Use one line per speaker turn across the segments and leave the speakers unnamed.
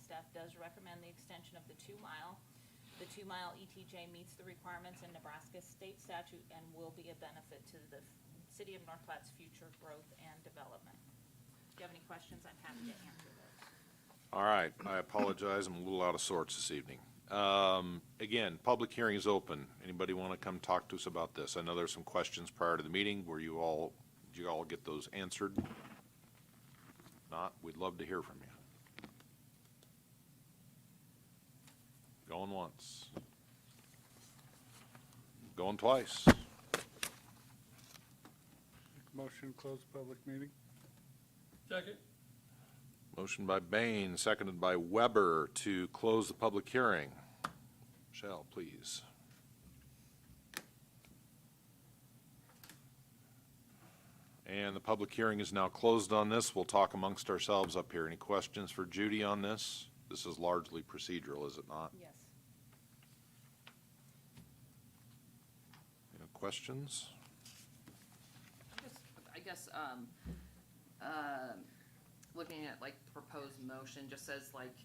staff does recommend the extension of the two-mile. The two-mile ETJ meets the requirements in Nebraska state statute and will be a benefit to the city of North Platte's future growth and development. If you have any questions, I'm happy to answer those.
All right, I apologize, I'm a little out of sorts this evening. Um, Again, public hearing is open. Anybody want to come talk to us about this? I know there's some questions prior to the meeting. Were you all, did you all get those answered? Not, we'd love to hear from you. Going once. Going twice.
Motion to close the public meeting?
Second.
Motion by Bain, seconded by Weber to close the public hearing. Michelle, please. And the public hearing is now closed on this. We'll talk amongst ourselves up here. Any questions for Judy on this? This is largely procedural, is it not?
Yes.
Any questions?
I'm just, I guess, um, um, looking at like the proposed motion, just says like,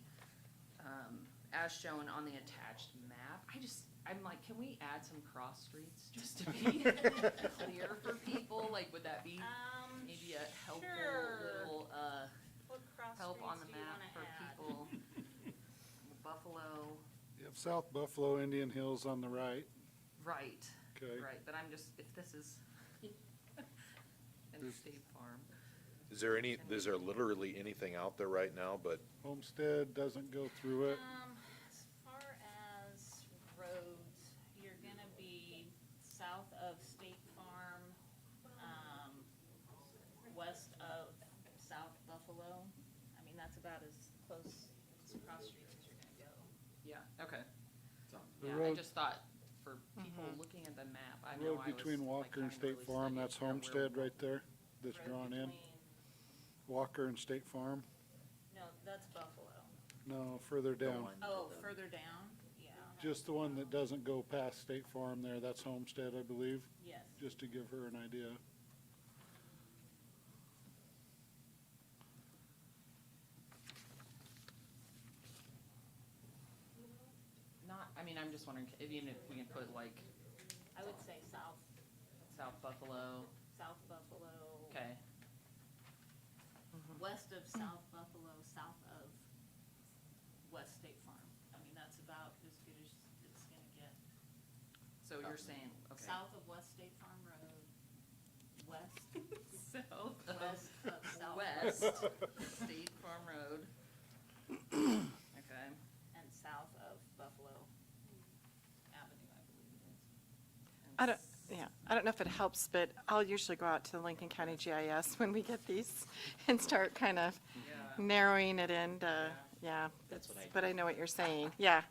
um, as shown on the attached map, I just, I'm like, can we add some cross streets just to be clear for people? Like, would that be
Um,
maybe a helpful
sure.
little, uh,
What cross
help on the
streets do you
map
wanna
for
add?
people? Buffalo,
Yep, South Buffalo, Indian Hills on the right,
right,
okay.
right, but I'm just, if this is in State Farm,
Is there any, is there literally anything out there right now but
Homestead doesn't go through it.
Um, as far as roads, you're gonna be south of State Farm, um, west of South Buffalo. I mean, that's about as close as cross streets as you're gonna go.
yeah, okay.
The
Yeah, I
road,
just thought for people looking at the map, I
the
know I was.
road between
like,
Walker and
trying to
State
really
Farm,
study
that's
where we're-
Homestead right there, that's
Road
drawn in.
between-
Walker and State Farm,
No, that's Buffalo.
no, further down.
Oh, further down? Yeah,
Just the one that doesn't go past State Farm there, that's Homestead, I believe,
yes.
just to give her an idea.
Not, I mean, I'm just wondering, if even if we can put like
I would say south,
South Buffalo,
south Buffalo.
okay,
west of South Buffalo, south of West State Farm. I mean, that's about as good as it's gonna get.
so you're saying, okay.
South of West State Farm Road, west,
South
west of
of
South.
West State Farm Road. Okay,
And south of Buffalo Avenue, I believe it is.
I don't, yeah, I don't know if it helps, but I'll usually go out to the Lincoln County GIS when we get these and start kind of
yeah,
narrowing it in to, yeah.
That's what I
But I know what you're saying, yeah,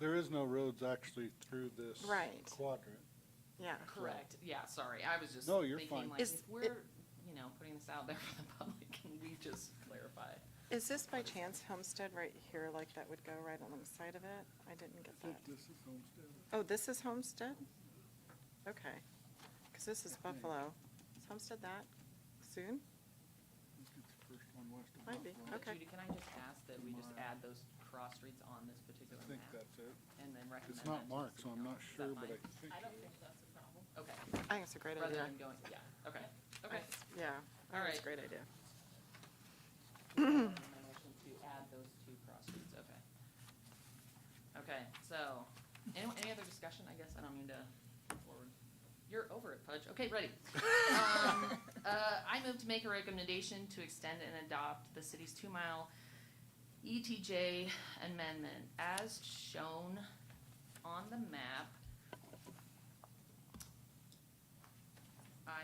There is no roads actually through this
Right.
quadrant.
yeah.
correct, yeah, sorry, I was just
No, you're fine.
thinking like,
Is
if
it-
we're, you know, putting this out there for the public, can we just clarify?
Is this by chance Homestead right here, like that would go right alongside of it? I didn't get
I think
that.
this is Homestead.
Oh, this is Homestead? Okay, because this is Buffalo. Is Homestead that soon?
I think it's the first one west of
Might be.
Buffalo.
But
Okay.
Judy, can I just ask that we just add those cross streets on this
I
particular
think
map
that's it.
and then recommend?
It's
that to
not
the
marked, so I'm
city
not
council?
sure,
Is
but
that
I
fine?
think.
I don't think that's a problem.
Okay,
I think it's a great
rather
idea.
than going, yeah, okay, okay.
Yeah, I think it's a
Alright.
great idea.
And then motion To add those two cross streets, okay. Okay, so, any, any other discussion, I guess, I don't mean to forward. You're over it, Fudge, okay, ready. Um, Uh, I move to make a recommendation to extend and adopt the city's two-mile ETJ amendment as shown on the map. I,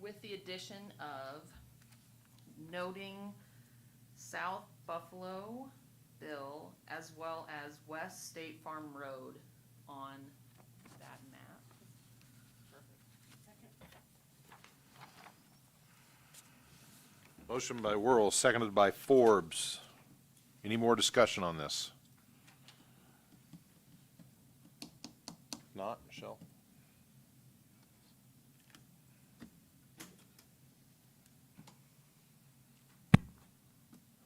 with the addition of noting South Buffalo Bill as well as West State Farm Road on that map.
Motion by Whirl, seconded by Forbes. Any more discussion on this? Not,